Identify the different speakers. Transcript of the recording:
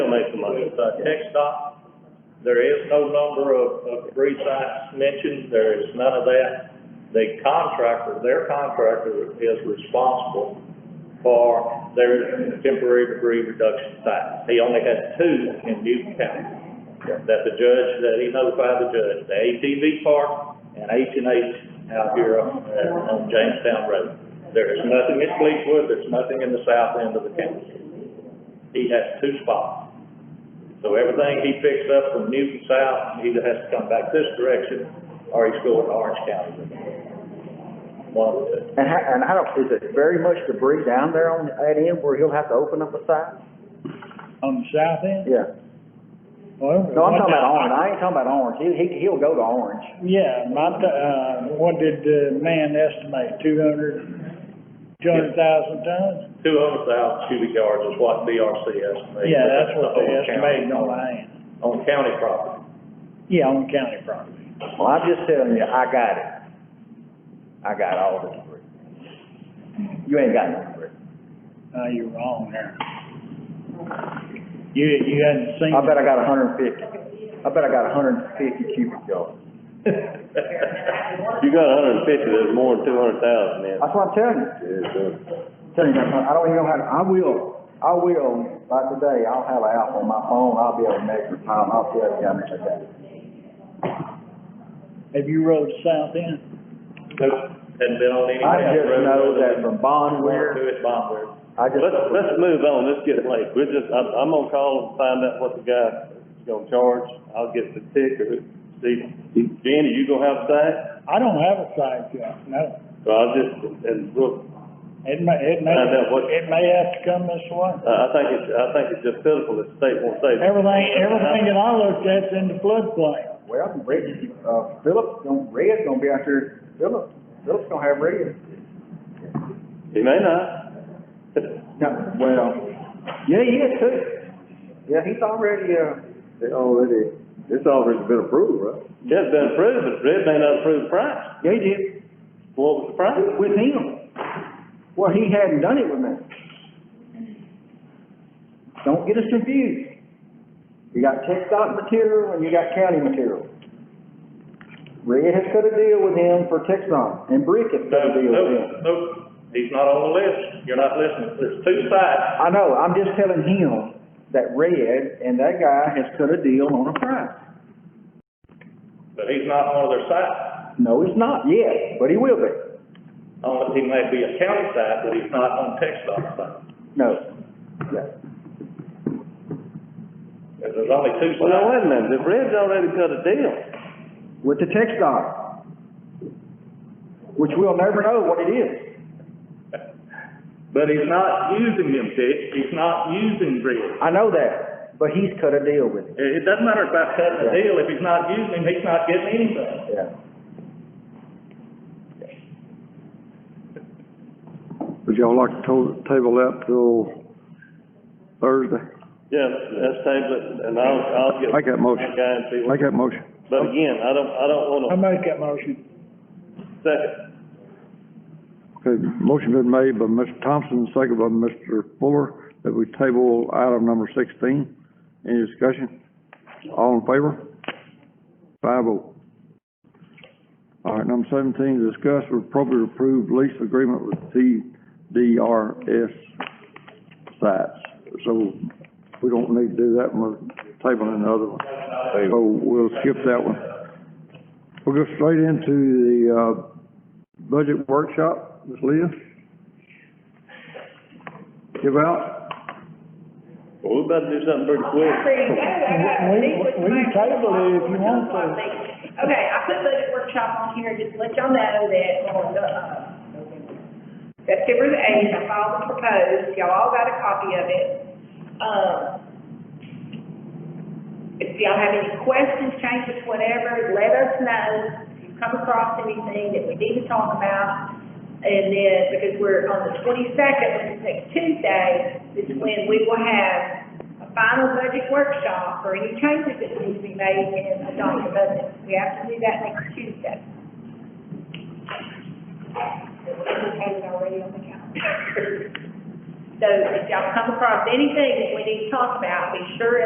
Speaker 1: with uh, Tech Dot. There is no number of, of debris sites mentioned, there is none of that. The contractor, their contractor is responsible for their temporary debris reduction sites. He only had two in Newton County that the judge, that he notified the judge, the ATV park and H and H out here on, uh, on Jamestown Road. There is nothing in Fleetwood, there's nothing in the south end of the county. He has two spots. So everything he picks up from Newton South, he either has to come back this direction or he's going to Orange County. One of the two.
Speaker 2: And how, and I don't, is it very much debris down there on that end where he'll have to open up a side?
Speaker 3: On the south end?
Speaker 2: Yeah.
Speaker 3: Well,
Speaker 2: No, I'm
Speaker 3: what
Speaker 2: talking
Speaker 3: the-
Speaker 2: about Orange, I ain't talking about Orange, he, he, he'll go to Orange.
Speaker 3: Yeah, my, t- uh, what did the man estimate, two hundred, two hundred thousand tons?
Speaker 1: Two hundred thousand cubic yards is what DRC estimates.
Speaker 3: Yeah, that's what
Speaker 1: the
Speaker 3: they
Speaker 1: whole county
Speaker 3: estimated on land.
Speaker 1: On county property.
Speaker 3: Yeah, on county property.
Speaker 2: Well, I'm just telling you, I got it. I got all the debris. You ain't got no debris.
Speaker 3: Uh, you're wrong there. You, you hadn't seen.
Speaker 2: I bet I got a hundred and fifty, I bet I got a hundred and fifty cubic yards.
Speaker 4: You got a hundred and fifty, there's more than two hundred thousand in.
Speaker 2: That's what I'm telling you. Telling you, I don't even know how, to- I will, I will, by today, I'll have an app on my phone, I'll be able to measure time, I'll tell you how much I got.
Speaker 3: Have you rode the south end?
Speaker 1: Nope, hadn't been on any.
Speaker 2: I
Speaker 1: county
Speaker 2: just
Speaker 1: road
Speaker 2: know
Speaker 1: other
Speaker 2: that
Speaker 1: than
Speaker 2: from Bondware,
Speaker 1: Do it Bondware.
Speaker 2: I just.
Speaker 4: Let's, let's move on, let's get late, we're just, I'm, I'm gonna call and find out what the guy is gonna charge, I'll get the ticker, Steve, Jenny, you gonna have a say?
Speaker 3: I don't have a side yet, no.
Speaker 4: So I'll just, and look,
Speaker 3: It may, it may,
Speaker 4: I know what-
Speaker 3: it may have to come this way.
Speaker 4: I, I think it's, I think it's just pitiful that the state won't save. it.
Speaker 3: Everything, everything that I looked at's in the floodplain.
Speaker 2: Well, Red, uh, Phillips, gonna- Red's gonna be out there, Phillips, Phillips gonna have Red.
Speaker 4: He may not.
Speaker 2: No, well, yeah, he is too. Yeah, he's already, uh,
Speaker 5: already, this already's been approved, right?
Speaker 4: Yeah, it's been approved, but Red may not approve the price,
Speaker 2: yeah, he did,
Speaker 4: what was the price?
Speaker 2: with him. Well, he hadn't done it with me. Don't get us confused. You got tech dot material and you got county material. Red has cut a deal with him for tech dot, and Brick has cut a deal with him.
Speaker 1: Nope, nope, he's not on the list, you're not listening, there's two sides.
Speaker 2: I know, I'm just telling him that Red and that guy has cut a deal on a price.
Speaker 1: but he's not one of their sites.
Speaker 2: No, he's not yet, but he will be.
Speaker 1: Only he may be a county site, but he's not on Texas site.
Speaker 2: No. Yeah.
Speaker 1: There's there's only two
Speaker 4: Well, now,
Speaker 1: sides.
Speaker 4: wait a minute, if Red's already cut a deal,
Speaker 2: With the text dot, which we'll never know what it is.
Speaker 1: But he's not using them, Dick, he's not using Bridge.
Speaker 2: I know that, but he's cut a deal with it.
Speaker 1: It, it doesn't matter about cutting the deal, if he's not using him, he's not getting anything.
Speaker 2: Yeah.
Speaker 5: Would y'all like to to- table that till Thursday?
Speaker 4: yeah, let's table it, and I'll, I'll get.
Speaker 5: Make that motion.
Speaker 4: my Guy and see what,
Speaker 5: Make that motion.
Speaker 4: but again, I don't, I don't
Speaker 3: I
Speaker 4: wanna
Speaker 3: make that motion.
Speaker 4: second,
Speaker 5: Okay, motion been made by Mr. Thompson, second by Mr. Fuller, that we table item number sixteen. Any discussion? All in favor? Five oh. All right, number seventeen, discuss with appropriate approved lease agreement with TDRS sites. So we don't need to do that one, we're tabling the other one. So we'll skip that one. We'll go straight into the, uh, budget workshop, Ms. Leah? Give out?
Speaker 4: well, we better do something pretty quick.
Speaker 3: We- we- we can table it if you want to.
Speaker 6: Okay, I put budget workshop on here, just to let y'all know that on, uh, September the eighth, I filed the proposed, y'all all got a copy of it. Um, if y'all have any questions, changes, whatever, let us know. If you come across anything that we need to talk about, and then, because we're on the twenty-second, which is next Tuesday, is when we will have a final budget workshop for any changes that need to be made in the adopted budget. We have to do that next Tuesday. It's added already on the calendar. So if y'all come across anything that we need to talk about, be sure